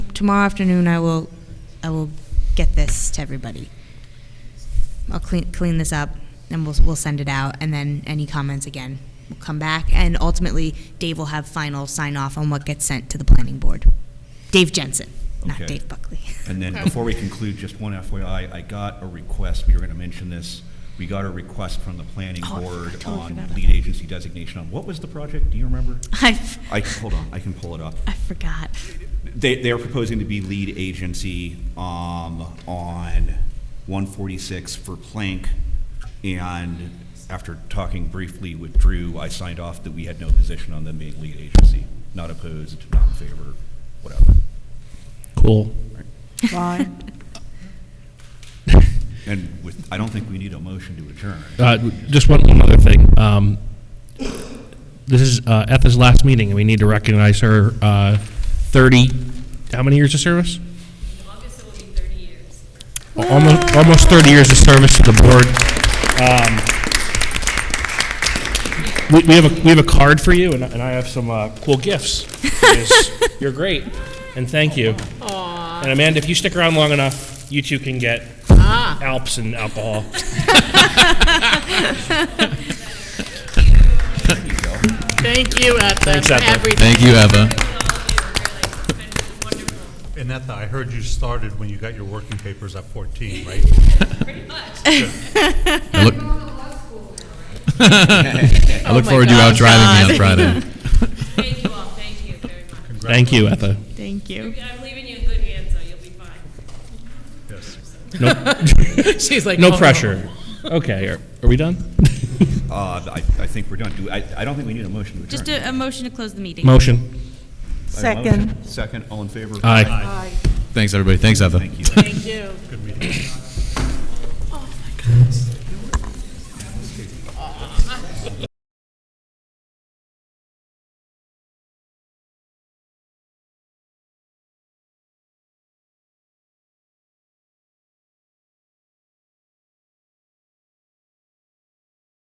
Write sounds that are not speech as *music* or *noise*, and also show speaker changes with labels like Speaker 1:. Speaker 1: tomorrow afternoon, I will, I will get this to everybody. I'll clean, clean this up, and we'll, we'll send it out, and then any comments again will come back, and ultimately, Dave will have final sign-off on what gets sent to the planning board. Dave Jensen, not
Speaker 2: Okay.
Speaker 1: Dave Buckley.
Speaker 2: And then before we conclude, just one FYI, I got a request, we were going to mention this, we got a request from the planning
Speaker 1: Oh, I
Speaker 2: board
Speaker 1: totally
Speaker 2: on
Speaker 1: forgot about
Speaker 2: lead
Speaker 1: that.
Speaker 2: agency designation on, what was the project, do you remember?
Speaker 1: *laughs* I,
Speaker 2: I, hold on, I can pull it up.
Speaker 1: I forgot.
Speaker 2: They, they are proposing to be lead agency um, on 146 for Plank, and after talking briefly with Drew, I signed off that we had no position on them being lead agency, not opposed, not in favor, whatever.
Speaker 3: Cool.
Speaker 2: And with, I don't think we need a motion to adjourn.
Speaker 3: Uh, Just one, one other thing. Um, This is uh, Etha's last meeting, and we need to recognize her uh, 30, how many years of service?
Speaker 4: August it will be 30 years.
Speaker 3: Al- Almost, almost 30 years of service to the board. Um, We, we have a, we have a card for you, and I and I have some uh, cool gifts.
Speaker 4: *laughs*
Speaker 3: because You're great, and thank you. And Amanda, if you stick around long enough, you two can get
Speaker 4: Ah.
Speaker 3: Alps and alcohol.
Speaker 5: Thank you, Ethan,
Speaker 3: Thanks,
Speaker 5: for
Speaker 3: Ethan.
Speaker 5: everything.
Speaker 6: Thank you, Eva.
Speaker 4: It's been wonderful,
Speaker 7: Anetha, I heard you started when you got your working papers at 14, right?
Speaker 4: pretty much.
Speaker 6: I look, I
Speaker 5: Oh
Speaker 6: look forward to you
Speaker 5: *laughs*
Speaker 6: out driving me on Friday.
Speaker 4: *laughs* Thank you all, thank you very much.
Speaker 3: Thank you, Etha.
Speaker 5: Thank you.
Speaker 4: I'm leaving you in good hands, though, you'll be fine.
Speaker 7: Yes.
Speaker 5: She's like,
Speaker 3: No
Speaker 5: "Oh."
Speaker 3: pressure. Okay, are, are we done?
Speaker 2: Uh, I, I think we're done. Do, I, I don't think we need a motion to adjourn.
Speaker 1: Just a, a motion to close the meeting.
Speaker 3: Motion.
Speaker 2: I have a motion. Second, all in favor?
Speaker 3: Aye.
Speaker 6: Thanks, everybody. Thanks, Eva.
Speaker 2: Thank you.
Speaker 5: Thank you.
Speaker 7: Good meeting.